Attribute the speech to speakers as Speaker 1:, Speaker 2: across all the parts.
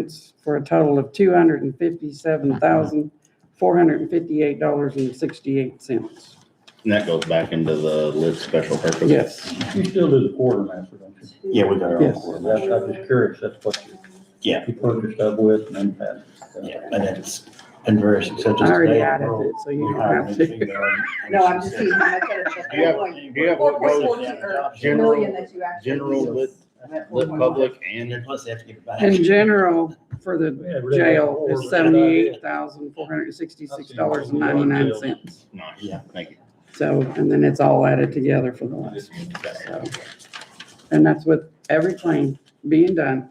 Speaker 1: It's for a total of two hundred and fifty-seven thousand, four hundred and fifty-eight dollars and sixty-eight cents.
Speaker 2: And that goes back into the list special purpose.
Speaker 1: Yes,
Speaker 3: You still do the quartermaster, don't you?
Speaker 4: Yeah, we got our own
Speaker 1: Yes.
Speaker 4: quarter
Speaker 3: That's, I'm just curious, that's what you.
Speaker 4: Yeah.
Speaker 3: You purchased up with and then passed. it.
Speaker 4: Yeah, and it's been very successful.
Speaker 1: I already added it, so you don't have to.
Speaker 5: No, I'm just seeing how much it is.
Speaker 2: Do you have, do you have what goes
Speaker 5: Million
Speaker 2: general,
Speaker 5: that you actually.
Speaker 2: general lit, lit public and,
Speaker 4: Plus they have to give it back.
Speaker 1: In general, for the
Speaker 3: Yeah, really,
Speaker 1: jail
Speaker 3: or-
Speaker 1: is seventy-eight thousand, four hundred and sixty-six dollars and ninety-nine cents.
Speaker 2: nice,
Speaker 4: Yeah.
Speaker 2: thank you.
Speaker 1: So, and then it's all added together for the last one, so. And that's with every claim being done,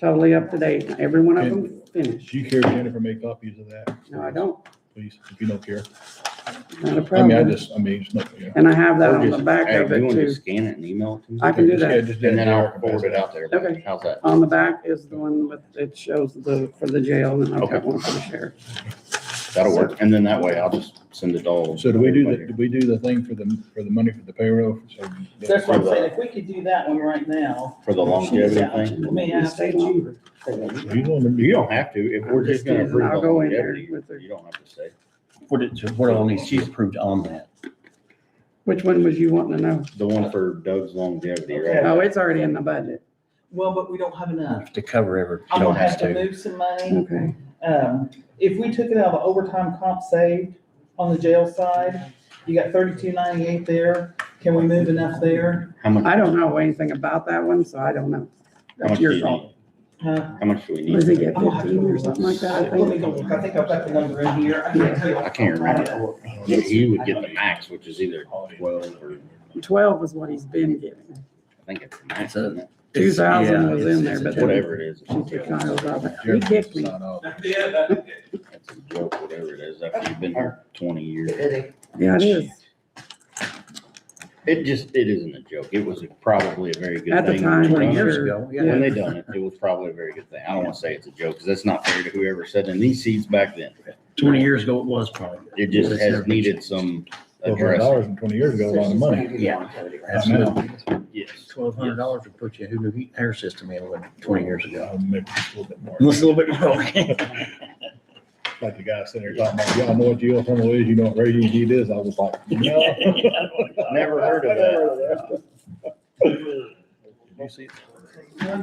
Speaker 1: totally up to date, every one of them finished.
Speaker 6: Do you care if Jennifer make copies of that,
Speaker 1: No, I don't,
Speaker 6: please, if you don't care?
Speaker 1: not a
Speaker 6: I mean, I
Speaker 1: problem.
Speaker 6: just, I mean, it's nothing, yeah.
Speaker 1: And I have that on the
Speaker 2: Just-
Speaker 1: back
Speaker 2: hey,
Speaker 1: of
Speaker 2: You
Speaker 1: it
Speaker 2: want to
Speaker 1: too.
Speaker 2: just scan it and email it to me?
Speaker 1: I can do that.
Speaker 6: Yeah, just-
Speaker 2: And then I'll forward it out there.
Speaker 1: Okay.
Speaker 2: How's that?
Speaker 1: On the back is the one with, it shows the, for the jail, and I've got
Speaker 2: Okay.
Speaker 1: one for the sheriff.
Speaker 2: That'll work. And then that way I'll just send it all.
Speaker 6: So do we do the, do we do the thing for the, for the money for the payroll? So
Speaker 7: That's what I'm saying, if we could do that one right now.
Speaker 2: For the longevity thing?
Speaker 7: Let me
Speaker 1: You
Speaker 7: ask
Speaker 1: stay
Speaker 7: that you-
Speaker 1: longer.
Speaker 6: You don't, remember-
Speaker 2: You don't have to, if we're just gonna
Speaker 1: And
Speaker 2: approve
Speaker 1: I'll
Speaker 2: the
Speaker 1: go in there
Speaker 2: longevity,
Speaker 1: with the,
Speaker 2: you don't have to say.
Speaker 4: What did, what all needs to be approved on that?
Speaker 1: which one was you wanting to know?
Speaker 2: The one for Doug's longevity,
Speaker 7: Okay.
Speaker 2: right?
Speaker 1: Oh, it's already in the budget.
Speaker 7: Well, but we don't have enough.
Speaker 4: To cover every.
Speaker 7: I'm
Speaker 4: Don't
Speaker 7: gonna have
Speaker 4: have
Speaker 7: to
Speaker 4: to.
Speaker 7: move some money.
Speaker 1: Okay.
Speaker 7: Um, if we took it out of overtime comp saved on the jail side, you got thirty-two ninety-eight there. Can we move enough there?
Speaker 2: How much,
Speaker 1: I don't know anything about that one, so I don't know.
Speaker 2: how much
Speaker 1: That's
Speaker 2: do
Speaker 1: your
Speaker 2: you
Speaker 1: fault.
Speaker 2: need?
Speaker 7: Huh?
Speaker 2: How much do we
Speaker 1: Was it
Speaker 2: need?
Speaker 1: get fifteen or something like that, I
Speaker 7: Uh, Let me
Speaker 1: think?
Speaker 7: go look. I think I've got the number in here. I can't tell you.
Speaker 2: I can't remember. You- You would get the max, which is either twelve or,
Speaker 1: Twelve is what he's been giving.
Speaker 2: I think it's the max, isn't it?
Speaker 4: It's-
Speaker 1: 2,000
Speaker 4: yeah,
Speaker 1: was
Speaker 4: it's-
Speaker 1: in there,
Speaker 4: it's a
Speaker 1: but then-
Speaker 4: whatever.
Speaker 2: Whatever it is.
Speaker 1: She took Kyle's off. He
Speaker 6: Jennifer
Speaker 1: kicked
Speaker 6: can
Speaker 1: me.
Speaker 6: sign off.
Speaker 2: That's a joke, whatever it is, after you've been here twenty years.
Speaker 1: Yeah, it is.
Speaker 2: It just, it isn't a joke. It was probably a very good
Speaker 1: At the
Speaker 2: thing.
Speaker 1: time,
Speaker 2: when
Speaker 4: Twenty
Speaker 2: they done
Speaker 4: years
Speaker 2: it.
Speaker 1: Sure.
Speaker 4: ago,
Speaker 2: When
Speaker 4: yeah.
Speaker 2: they done it, it was probably a very good thing. I don't wanna say it's a joke, cause that's not fair to whoever sat in these seats back then.
Speaker 4: Twenty years ago it was probably.
Speaker 2: It just
Speaker 4: It's
Speaker 2: has
Speaker 4: never-
Speaker 2: needed some
Speaker 6: Well, hundred
Speaker 2: address.
Speaker 6: dollars and twenty years ago, a lot of money.
Speaker 4: Yeah.
Speaker 6: Absolutely.
Speaker 2: Yes.
Speaker 4: Twelve hundred dollars would put you, who knew heat air system in when twenty years ago?
Speaker 6: Uh, Maybe just a little bit more.
Speaker 4: Unless a little bit more, okay.
Speaker 6: Like the guy sitting there talking about, yeah, I know what geothermal is, you know what radiant heat is. I was like, no.
Speaker 2: Never heard of that.
Speaker 7: Yours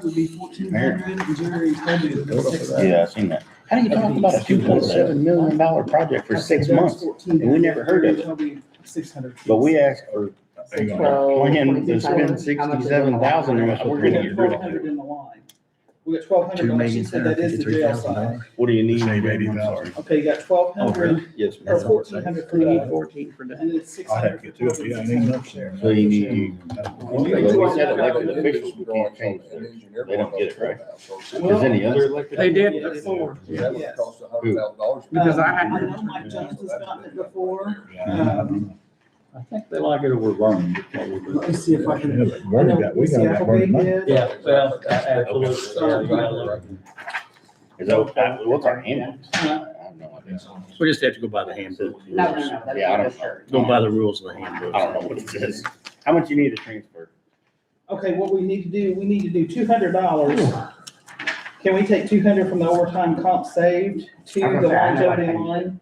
Speaker 7: would be fourteen hundred, and Jerry's budget would be six.
Speaker 2: Yeah, I seen that. How do you talk about a two point seven million dollar project for six months? and we never heard of it.
Speaker 7: Six hundred.
Speaker 2: But we asked for,
Speaker 6: Hang on.
Speaker 2: plan to spend sixty-seven thousand, and that's what we're
Speaker 7: We're
Speaker 2: gonna
Speaker 7: gonna
Speaker 2: get
Speaker 7: get
Speaker 2: rid
Speaker 7: twelve
Speaker 2: of. it.
Speaker 7: hundred in the line. We got twelve hundred,
Speaker 4: Two
Speaker 7: dollars. she
Speaker 4: million,
Speaker 7: said
Speaker 4: seven
Speaker 7: that is the
Speaker 4: fifty-three
Speaker 7: jail
Speaker 4: thousand
Speaker 7: side.
Speaker 4: dollars.
Speaker 2: What do you need?
Speaker 6: Save
Speaker 2: I'm
Speaker 6: eighty
Speaker 2: sorry.
Speaker 6: thousand.
Speaker 7: Okay, you got twelve hundred
Speaker 2: Yes, ma'am.
Speaker 7: or fourteen hundred for
Speaker 1: We need
Speaker 7: that,
Speaker 1: fourteen for that.
Speaker 7: and then it's six
Speaker 6: I'd
Speaker 7: hundred.
Speaker 6: have to get two of you. I ain't enough there.
Speaker 2: So you need,
Speaker 7: We said elected
Speaker 2: officials, we can't change
Speaker 8: that.
Speaker 2: They don't get it, right?
Speaker 7: Well,
Speaker 2: is any other,
Speaker 1: They did before,
Speaker 8: That would cost a hundred thousand dollars.
Speaker 1: because I
Speaker 7: I
Speaker 1: had-
Speaker 7: know Mike Johnson's gotten it before.
Speaker 6: Um,
Speaker 3: I think they like it over Vernon.
Speaker 7: Let me see if I
Speaker 6: yeah,
Speaker 7: can.
Speaker 6: but Vernon got- We got that Vernon money.
Speaker 3: Yeah, well,
Speaker 2: is that, what's our handbook? I have no idea.
Speaker 4: We just have to go by the handbook.
Speaker 5: No, no, no, that's
Speaker 2: Yeah, I
Speaker 5: not
Speaker 2: don't
Speaker 5: a shirt.
Speaker 4: Go by the rules of the handbook.
Speaker 2: I don't know what it says. How much you need to transfer?
Speaker 7: Okay, what we need to do, we need to do two hundred dollars. Can we take two hundred from the overtime comp saved to the longevity line?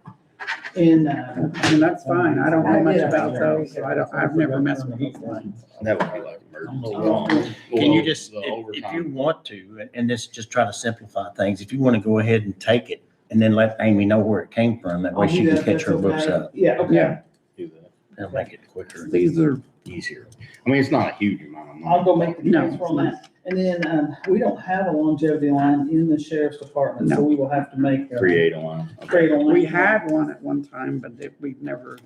Speaker 7: And, uh,
Speaker 1: and that's fine. I don't know much about those, so I don't, I've never messed with those lines.
Speaker 2: That would be like emergency.
Speaker 7: um,
Speaker 4: Can you just,
Speaker 2: The
Speaker 4: if if you
Speaker 2: overtime.
Speaker 4: want to, and- and this is just trying to simplify things, if you want to go ahead and take it and then let Amy know where it came from, that way
Speaker 7: I'll
Speaker 4: she
Speaker 7: do
Speaker 4: can
Speaker 7: that,
Speaker 4: catch
Speaker 7: Oh, that's
Speaker 4: her books
Speaker 7: okay.
Speaker 4: up
Speaker 7: Yeah, okay.
Speaker 1: Yeah,
Speaker 2: Do that.
Speaker 4: and make it quicker and
Speaker 1: these are,
Speaker 4: easier.
Speaker 2: I mean, it's not a huge amount of money.
Speaker 7: I'll go make the
Speaker 1: No.
Speaker 7: transfer on that. And then, um, we don't have a longevity line in the sheriff's department, so we will have to make. a-
Speaker 2: Create a line. Okay.
Speaker 7: Create a line.
Speaker 1: we had one at one time, but that we've never.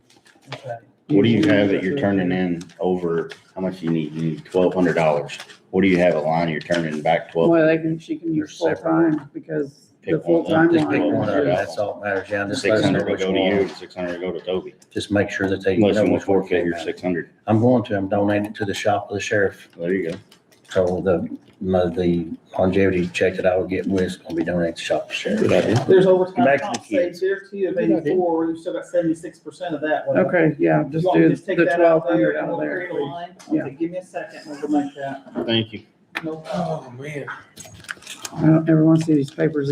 Speaker 7: Okay.
Speaker 2: What do you have that you're turning in over, how much you need? You need twelve hundred dollars. What do you have a line you're turning back twelve?
Speaker 1: Well, they can, she can use
Speaker 4: You're separate.
Speaker 1: full-time because the
Speaker 2: Pick one,
Speaker 1: full-time
Speaker 4: Just pick
Speaker 2: Well,
Speaker 4: one up,
Speaker 1: line.
Speaker 4: that's all that matters, yeah, just let
Speaker 2: Six
Speaker 4: us know
Speaker 2: hundred will
Speaker 4: which
Speaker 2: go to
Speaker 4: one.
Speaker 2: you, and six hundred will go to Toby.
Speaker 4: Just make sure that they.
Speaker 2: Unless
Speaker 4: know
Speaker 2: you want
Speaker 4: which one
Speaker 2: four
Speaker 4: came
Speaker 2: figure,
Speaker 4: out.
Speaker 2: six hundred.
Speaker 4: I'm going to, I'm donating it to the shop of the sheriff,
Speaker 2: There you go.
Speaker 4: so the, my, the longevity check that I would get was gonna be donated to shop of the sheriff.
Speaker 7: There's overtime
Speaker 4: Back to the
Speaker 7: comp saved there too of eighty-four, we've still got seventy-six percent of that one.
Speaker 1: Okay, yeah, just
Speaker 7: You want me
Speaker 1: do
Speaker 7: to
Speaker 1: the
Speaker 7: take that
Speaker 1: twelve
Speaker 7: out
Speaker 1: hundred
Speaker 7: and
Speaker 1: out
Speaker 7: we'll
Speaker 1: of there.
Speaker 7: create a line?
Speaker 1: Yeah.
Speaker 7: Okay, Give me a second, we'll go make that.
Speaker 2: Thank you.
Speaker 7: Nope.
Speaker 8: Oh, man.
Speaker 1: I don't ever want to see these papers